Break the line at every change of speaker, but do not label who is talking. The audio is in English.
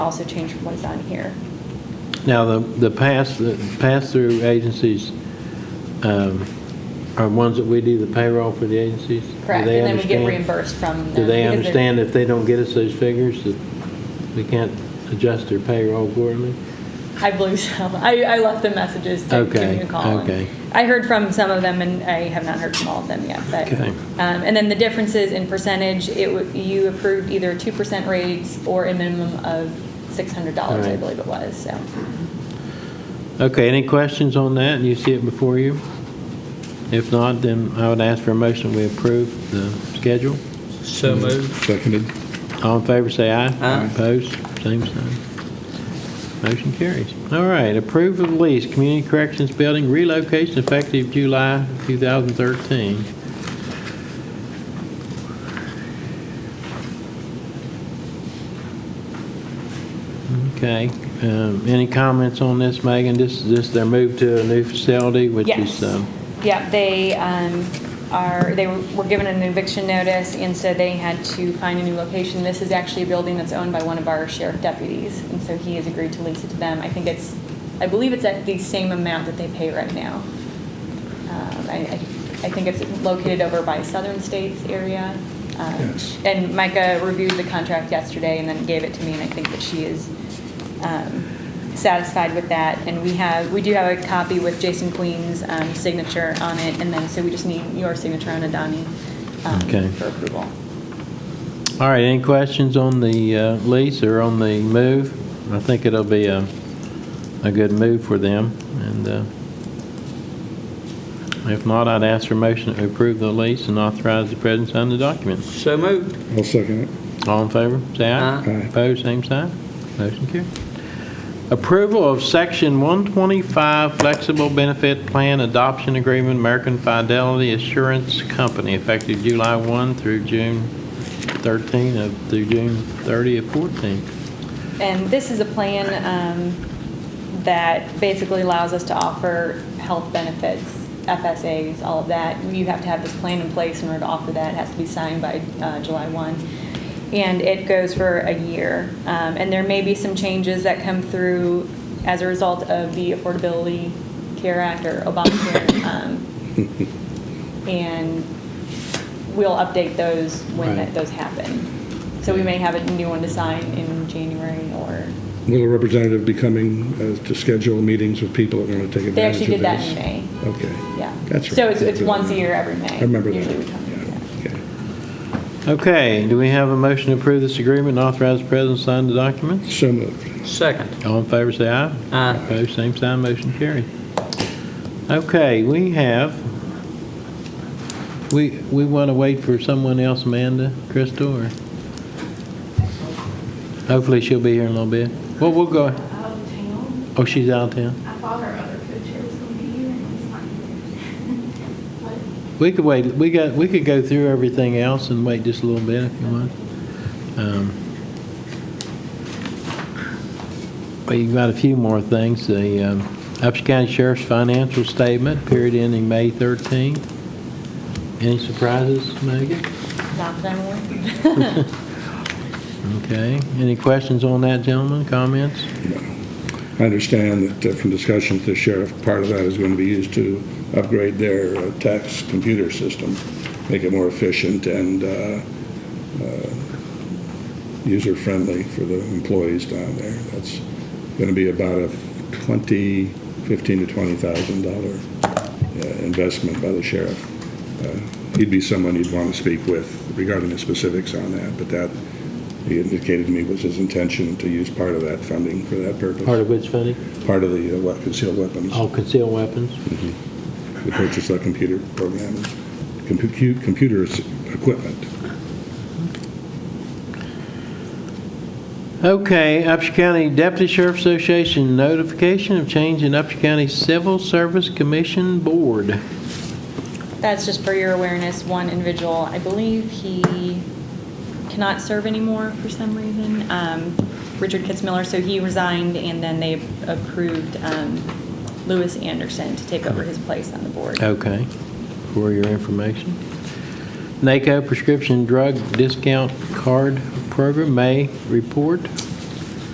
also change from what's on here.
Now, the, the pass, the pass-through agencies um, are ones that we do the payroll for the agencies? Do
Correct,
they
and then we get
understand-
reimbursed from them.
Do they
because they're-
understand if they don't get us those figures, that we can't adjust their payroll accordingly?
I believe so. I, I left the messages to
Okay,
give you a call. and
okay.
I heard from some of them, and I have not heard from all of them yet. But
Okay.
um, and then the differences in percentage, it wa- you approved either two percent rates or a minimum of six hundred dollars, I
Alright.
believe it was. So
Okay, any questions on that? You see it before you? If not, then I would ask for a motion, we approve the schedule.
So moved.
Seconded.
All in favor, say aye.
Aye.
Opposed, same sign. Motion carries. All right, approve of lease, Community Corrections Building relocation effective July 2013. Okay, um, any comments on this, Megan? This, this, they're moved to a new facility, which
yes,
is, um,
yeah, they um, are they were, were given an eviction notice, and so they had to find a new location. This is actually a building that's owned by one of our sheriff deputies, and so he has agreed to lease it to them. I think it's, I believe it's at the same amount that they pay right now. Um, I, I I think it's located over by Southern States area. Um,
Yes.
And Micah reviewed the contract yesterday and then gave it to me, and I think that she is um, satisfied with that. And we have, we do have a copy with Jason Queen's um, signature on it, and then, so we just need your signature on it, Donnie, um,
Okay.
for approval.
all right, any questions on the uh, lease or on the move? I think it'll be a, a good move for them, and uh, if not, I'd ask for a motion to approve the lease and authorize the president to sign the document.
So moved.
I'll second it.
All in favor, say aye.
Aye. Aye.
Opposed, same sign. Motion carried. Approval of Section 125 Flexible Benefit Plan Adoption Agreement, American Fidelity Assurance Company, effective July 1 through June 13 of, through June 30 of 14.
And this is a plan um, that basically allows us to offer health benefits, FSAs, all of that. You have to have this plan in place in order to offer that. It has to be signed by uh, July 1. And it goes for a year. Um, And there may be some changes that come through as a result of the Affordability Care Act or Obamacare. um, And we'll update those when
Right.
that- those happen. So we may have a new one to sign in January or,
Will a representative be coming uh, to schedule meetings with people that are going to take
they
advantage
actually
of
did
this?
that in May,
Okay.
yeah.
That's right.
So it's, it's once a year every May.
I remember that.
Usually we come, yeah.
Yeah, okay.
Okay, do we have a motion to approve this agreement and authorize the president to sign the documents?
So moved.
Second.
All in favor, say aye.
Aye.
Opposed, same sign, motion carried. Okay, we have, we, we want to wait for someone else, Amanda, Crystal, or? Hopefully she'll be here in a little bit. Well, we'll go,
out of town.
oh, she's out of town.
Um, I thought our other co-chair was gonna be here and he's not here.
We could wait, we got, we could go through everything else and wait just a little bit if you want. Um, We've got a few more things. The um, Upshur County Sheriff's financial statement, period ending May 13th. Any surprises, Megan?
Not that I'm aware of.
Okay. Any questions on that, gentlemen? Comments?
I understand that uh, from discussions with the sheriff, part of that is going to be used to upgrade their uh, tax computer system, make it more efficient and uh, uh, user-friendly for the employees down there. That's going to be about a 20, 15 to $20,000 uh, investment by the sheriff. Uh, He'd be someone you'd want to speak with regarding the specifics on that, but that, he indicated to me was his intention to use part of that funding for that purpose
Part of which funding?
part of the uh, what- concealed weapons.
Oh, concealed weapons.
We purchased that computer program, compu- computer s- equipment.
Okay, Upshur County Deputy Sheriff Association notification of change in Upshur County Civil Service Commission Board.
That's just for your awareness, one individual, I believe he cannot serve anymore for some reason, um, Richard Kitzmiller, so he resigned and then they approved um, Lewis Anderson to take over his place on the board.
Okay, for your information. NACO prescription drug discount card program, May report.